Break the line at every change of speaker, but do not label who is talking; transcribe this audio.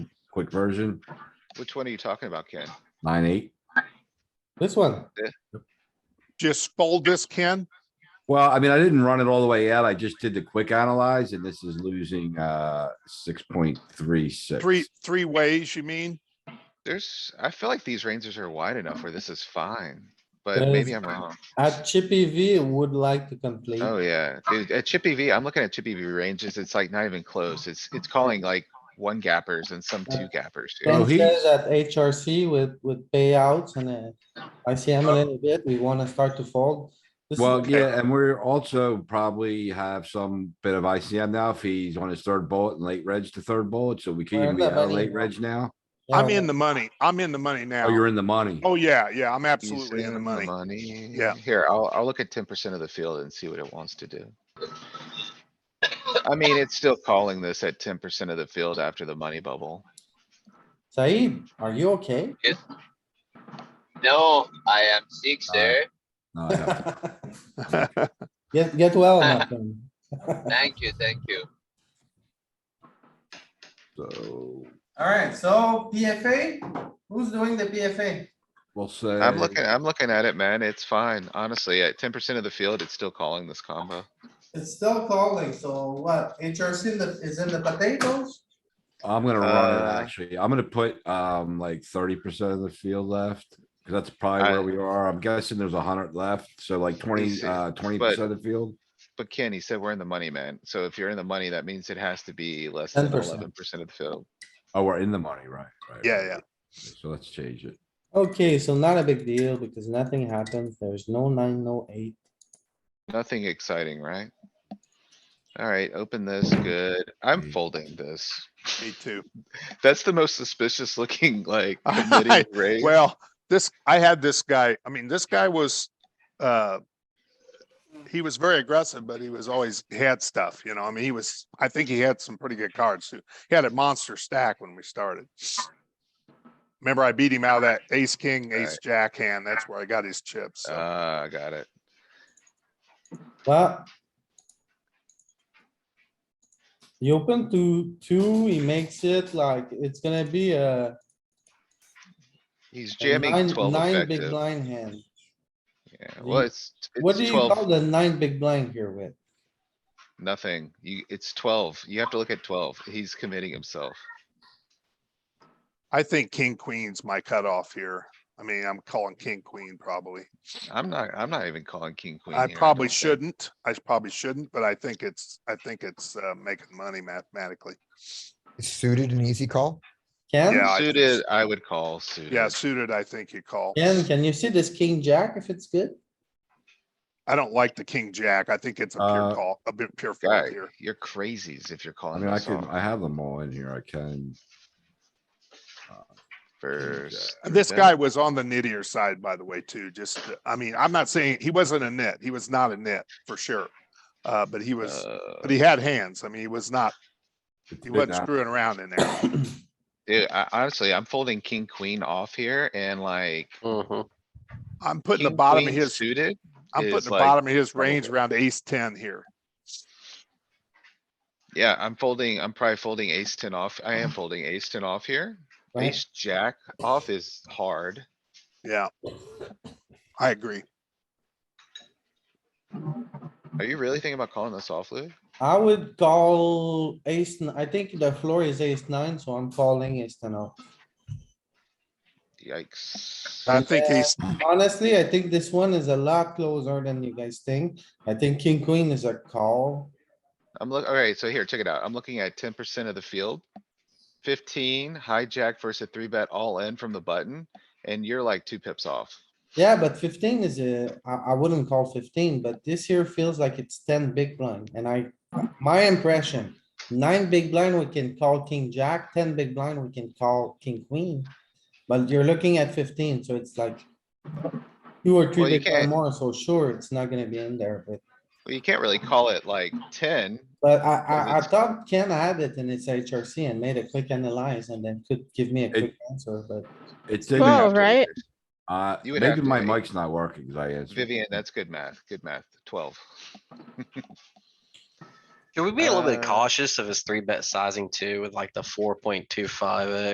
quick version,
Which one are you talking about, Ken?
nine, eight.
This one,
Just fold this, Ken.
Well, I mean, I didn't run it all the way out. I just did the quick analyze and this is losing, uh, six point three six.
Three, three ways, you mean?
There's, I feel like these ranges are wide enough where this is fine, but
There's-
maybe I'm wrong.
at Chippy V would like to complete.
Oh, yeah. Dude, At Chippy V, I'm looking at Chippy V ranges. It's like not even close. It's, it's calling like one gappers and some two gappers. dude.
Oh,
Ben
he-
says at HRC with, with payouts and uh, ICM a little bit, we wanna start to fold. This is-
Well, yeah, and we're also probably have some bit of ICM now if he's on his third bullet and late reg to third bullet, so we can
Where
even
are
be
the
out of
money?
late reg now.
I'm in the money. I'm in the money
Oh,
now.
you're in the money.
Oh, yeah, yeah, I'm
He's
absolutely in the money. Yeah.
Here, I'll, I'll look at ten percent of the field and see what it wants to do. I mean, it's still calling this at ten percent of the field after the money bubble.
Said, are you okay?
No, I am sick, sir.
No, I have to-
Get, get well, Malcolm.
Thank you, thank you.
So,
Alright, so PFA, who's doing the PFA?
we'll say.
I'm looking, I'm looking at it, man. It's fine. Honestly, at ten percent of the field, it's still calling this combo.
It's still calling, so what, HRC in the- is in the potatoes?
I'm gonna run it,
Uh,
actually. I'm gonna put, um, like thirty percent of the field left. Cause that's probably
I-
where we are. I'm guessing there's a hundred left, so like twenty,
see,
uh, twenty percent of the field.
But Ken, he said we're in the money, man. So if you're in the money, that means it has to be less than
10%.
eleven percent of the field.
Oh, we're in the money, right? right,
Yeah,
right,
yeah.
right. So let's change it.
Okay, so not a big deal because nothing happens. There's no nine, no eight.
Nothing exciting, right? Alright, open this, good. I'm
Mm.
folding this.
Me too.
That's the most suspicious looking like
I-
committee raise.
Well, this, I had this guy, I mean, this guy was, uh, he was very aggressive, but he was always, he had stuff, you know, I mean, he was, I think he had some pretty good cards too. He had a monster stack when we started. Remember I beat him out of that ace, king, ace, jack hand. That's where I got his chips. so.
Ah, got it.
Well. You open to two, he makes it like, it's gonna be a
He's
a nine,
jamming twelve
nine big
effective.
blind hand.
Yeah, well,
You-
it's,
What do
it's
you call
twelve,
the nine big blind here with?
nothing. You, it's twelve. You have to look at twelve. He's committing himself.
I think king, queen's my cutoff here. I mean, I'm calling king, queen probably.
I'm not, I'm not even calling king, queen.
I
here,
probably
don't think.
shouldn't. I probably shouldn't, but I think it's, I think it's, uh, making money mathematically.
It's suited and easy call.
Ken,
Yeah, I think
Suited, I would call suited.
Yeah, suited, I think you call.
Ken, can you see this king jack if it's good?
I don't like the king, jack. I think it's a pure
Uh,
call, a bit pure
Guy,
fold here.
you're crazies if you're
I
calling
mean, I
this
can,
off
I have them all in here. I can.
first.
Uh, This guy was on the nittier side, by the way, too. Just, uh, I mean, I'm not saying, he wasn't a nit. He was not a nit for sure. Uh, but he was, but
Uh.
he had hands. I mean, he was not,
it's
he
been
wasn't
out.
screwing around in there.
Dude, I honestly, I'm folding king, queen off here and like.
I'm putting the
king,
bottom of
queen
his,
Suited,
I'm
is
putting the
like
bottom of his
double
range
it.
around ace ten here.
yeah, I'm folding, I'm probably folding ace ten off. I am folding ace ten off here.
Right?
Ace jack off is hard.
Yeah. I agree.
Are you really thinking about calling this off, Louis?
I would call ace, n- I think the floor is ace nine, so I'm calling ace ten off.
Yikes.
I think
Yeah.
he's,
Honestly, I think this one is a lot closer than you guys think. I think king, queen is a call.
I'm look, alright, so here, check it out. I'm looking at ten percent of the field. Fifteen hijack versus three bet all in from the button, and you're like two pips off.
Yeah, but fifteen is a, I, I wouldn't call fifteen, but this here feels like it's ten big blind and I, my impression. Nine big blind, we can call king, jack, ten big blind, we can call king, queen. But you're looking at fifteen, so it's like. Two or three
Well, you
big blind
can't-
more, so sure, it's not gonna be in there, but,
Well, you can't really call it like ten.
but I, I, I
it's-
thought Ken had it in his HRC and made a quick analyze and then could give me a quick answer, but.
It's
You would
Whoa,
have
digging,
to-
right?
uh,
you would
maybe my
activate.
mic's not working, 'cause I answered.
Vivian, that's good math, good math, twelve.
Should we be a little bit
Uh,
cautious of his three bet sizing too with like the four point two five uh,